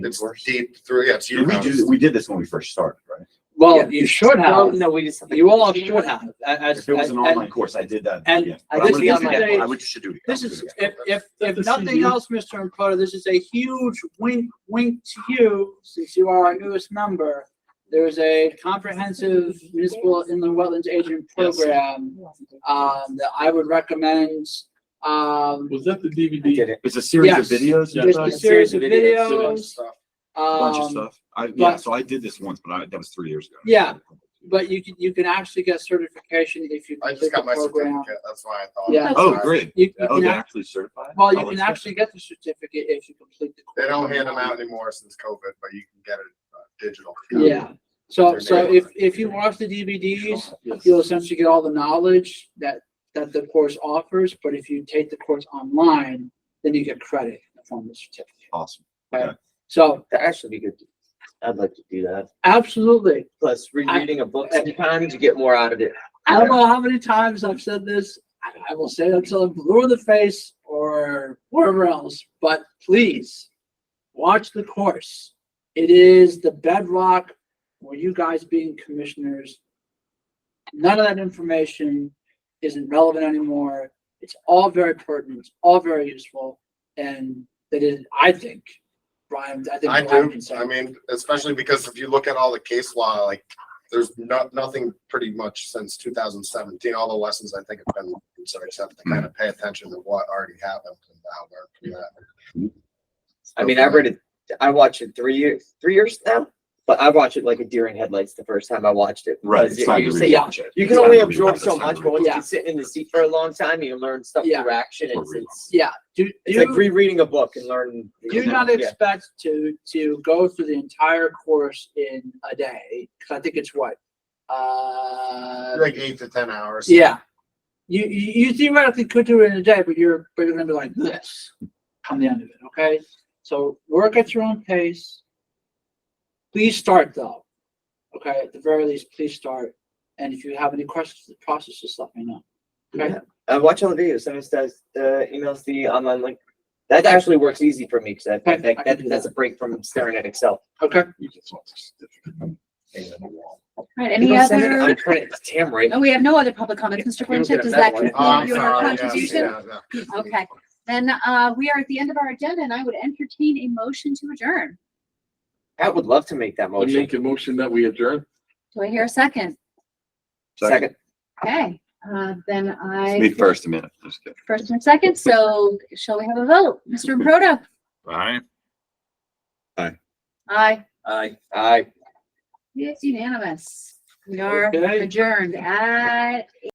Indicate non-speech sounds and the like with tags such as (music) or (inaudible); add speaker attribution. Speaker 1: It's deep through, yeah, it's year
Speaker 2: Did we do,
Speaker 1: round.
Speaker 2: we did this when we first started, right?
Speaker 3: Well, you should
Speaker 4: Well,
Speaker 3: have,
Speaker 4: no, we just. have to-
Speaker 3: you all should have, as,
Speaker 2: If it was an online
Speaker 3: and,
Speaker 2: course, I did that.
Speaker 3: and
Speaker 2: yeah.
Speaker 3: I
Speaker 2: But
Speaker 3: guess
Speaker 2: I'm gonna
Speaker 3: the
Speaker 2: do
Speaker 3: other
Speaker 2: it
Speaker 3: day-
Speaker 2: again. I would, should do it.
Speaker 3: this
Speaker 2: I'll do
Speaker 3: is,
Speaker 2: it again.
Speaker 3: if, if,
Speaker 5: That the
Speaker 3: if nothing
Speaker 2: E
Speaker 5: CD
Speaker 3: else, Mr. Improto, this is a huge wink, wink to you, since you are our newest member. There's a comprehensive municipal inland wetlands agent
Speaker 5: Yes.
Speaker 3: program, um, that I would recommend, um,
Speaker 5: Was that the
Speaker 4: I
Speaker 5: DVD?
Speaker 4: did it.
Speaker 2: It's a series of
Speaker 3: Yes.
Speaker 2: videos. you
Speaker 5: Yes.
Speaker 3: just
Speaker 2: thought?
Speaker 3: a series of videos,
Speaker 1: Stuff.
Speaker 2: Bunch of
Speaker 3: um,
Speaker 2: stuff. I, yeah,
Speaker 3: but-
Speaker 2: so I did this once, but I, that was three years ago.
Speaker 3: Yeah. but you can, you can actually get certification if you
Speaker 1: I
Speaker 3: complete
Speaker 1: just
Speaker 3: the
Speaker 1: got my
Speaker 3: program.
Speaker 1: certificate, that's why I thought.
Speaker 3: Yeah.
Speaker 2: Oh, great.
Speaker 3: You, you
Speaker 2: Oh,
Speaker 3: can
Speaker 2: they're
Speaker 3: act-
Speaker 2: actually certified?
Speaker 3: well,
Speaker 2: Oh,
Speaker 3: you can
Speaker 2: that's-
Speaker 3: actually get the certificate if you complete the.
Speaker 1: They don't hand them
Speaker 3: program.
Speaker 1: out anymore since COVID, but you can get it uh, digital.
Speaker 3: Yeah, so, so if, if you watch the DVDs, you'll essentially get all the knowledge that, that the course offers, but if you take the course online, then you get credit in the form of a certificate.
Speaker 2: Awesome.
Speaker 3: So,
Speaker 4: That actually be good. I'd like to do that.
Speaker 3: absolutely.
Speaker 4: Plus, rereading a book sometimes you get more out of it.
Speaker 3: I don't know how many times I've said this, I, I will say it until I'm blue in the face or wherever else, but please, watch the course. It is the bedrock for you guys being commissioners. None of that information isn't relevant anymore. It's all very pertinent, it's all very useful, and that is, I think, Brian, I think.
Speaker 1: I
Speaker 3: Brian
Speaker 1: do,
Speaker 3: can say-
Speaker 1: I mean, especially because if you look at all the case law, like, there's not, nothing pretty much since two thousand seventeen, all the lessons I think have been, so except to kind of pay attention to what already happened and how we're, yeah.
Speaker 4: I mean, I read it, I watched it three years, three years now, but I watched it like a deer in headlights the first time I watched it.
Speaker 2: Right.
Speaker 4: because
Speaker 2: it's time
Speaker 4: you-
Speaker 2: to
Speaker 4: you say-
Speaker 2: rewatch it.
Speaker 4: You
Speaker 2: It's
Speaker 4: can
Speaker 2: time
Speaker 4: only
Speaker 2: to rewatch
Speaker 4: absorb
Speaker 2: it.
Speaker 4: so
Speaker 2: It's time
Speaker 4: much,
Speaker 2: to
Speaker 4: but once
Speaker 2: rewatch
Speaker 3: Yeah.
Speaker 4: you sit in the seat for a long time, you learn stuff
Speaker 3: Yeah.
Speaker 4: through action.
Speaker 2: Or
Speaker 4: It's,
Speaker 2: rewind.
Speaker 4: it's,
Speaker 3: Yeah, do, do.
Speaker 4: it's like rereading a book and learning.
Speaker 3: do not
Speaker 4: Yeah.
Speaker 3: expect to to go through the entire course in a day because I think it's what uh
Speaker 1: Like eight to ten hours.
Speaker 3: yeah you you you theoretically could do it in a day but you're but you're gonna be like this come the end of it okay so work at your own pace please start though okay at the very least please start and if you have any questions in the process just let me know okay
Speaker 4: Yeah. I watch all the videos. Sometimes does uh, emails the online link. That actually works easy for me because I,
Speaker 3: Okay,
Speaker 4: that, that,
Speaker 3: I can do
Speaker 4: that's a break from staring at Excel.
Speaker 3: okay
Speaker 6: All right,
Speaker 4: You
Speaker 6: any
Speaker 4: don't send it-
Speaker 6: other,
Speaker 4: I'm trying to, damn right.
Speaker 6: oh, we have no other public comments. Mr.
Speaker 4: You'll get
Speaker 6: Blanchett,
Speaker 4: a
Speaker 6: does
Speaker 4: better
Speaker 6: that
Speaker 4: one.
Speaker 1: Oh, I'm
Speaker 6: conclude your
Speaker 1: sorry, yes,
Speaker 6: contribution?
Speaker 1: yeah, yeah.
Speaker 6: Okay. Then, uh, we are at the end of our agenda and I would entertain a motion to adjourn.
Speaker 4: I would love to make that
Speaker 5: I
Speaker 4: motion.
Speaker 5: make a motion that we adjourn.
Speaker 6: Do I hear a second?
Speaker 2: Second.
Speaker 4: Second.
Speaker 6: Okay, uh, then
Speaker 2: It's Me
Speaker 6: I,
Speaker 2: first a minute. Just kidding.
Speaker 6: first and second, so shall we have a vote? Mr. Proto?
Speaker 3: (laughs)
Speaker 2: All right.
Speaker 6: Aye.
Speaker 4: Aye. Aye.
Speaker 6: It's unanimous. We are
Speaker 3: Okay.
Speaker 6: adjourned at